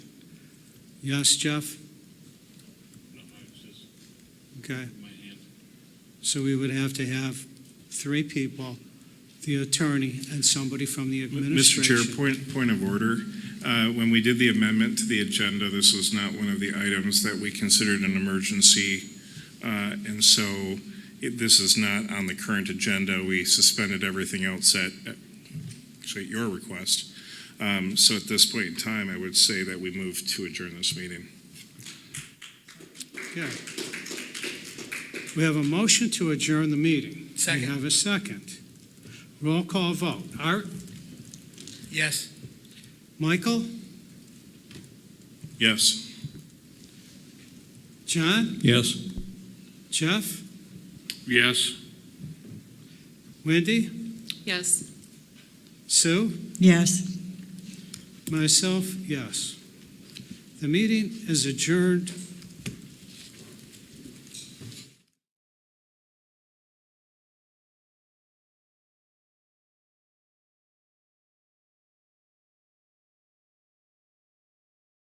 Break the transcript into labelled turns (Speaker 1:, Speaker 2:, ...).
Speaker 1: Yes, Jeff?
Speaker 2: No, I was just
Speaker 1: Okay.
Speaker 2: my hand.
Speaker 1: So we would have to have three people, the attorney and somebody from the
Speaker 3: Mr. Chair,
Speaker 1: administration.
Speaker 3: point, point of order. Uh, When we did the amendment to the agenda, this was not one of the items that we considered an emergency. uh, And so it- this is not on the current agenda. We suspended everything else at, at- actually, at your request. Um, So at this point in time, I would say that we move to adjourn this meeting.
Speaker 1: We have a motion to adjourn the meeting. We
Speaker 4: Second,
Speaker 1: have a second. Roll call vote. Art,
Speaker 4: yes.
Speaker 1: Michael,
Speaker 3: Yes?
Speaker 1: John,
Speaker 5: Yes.
Speaker 1: Jeff,
Speaker 2: Yes.
Speaker 1: Wendy,
Speaker 6: Yes.
Speaker 1: Sue,
Speaker 7: Yes.
Speaker 1: myself, yes. The meeting is adjourned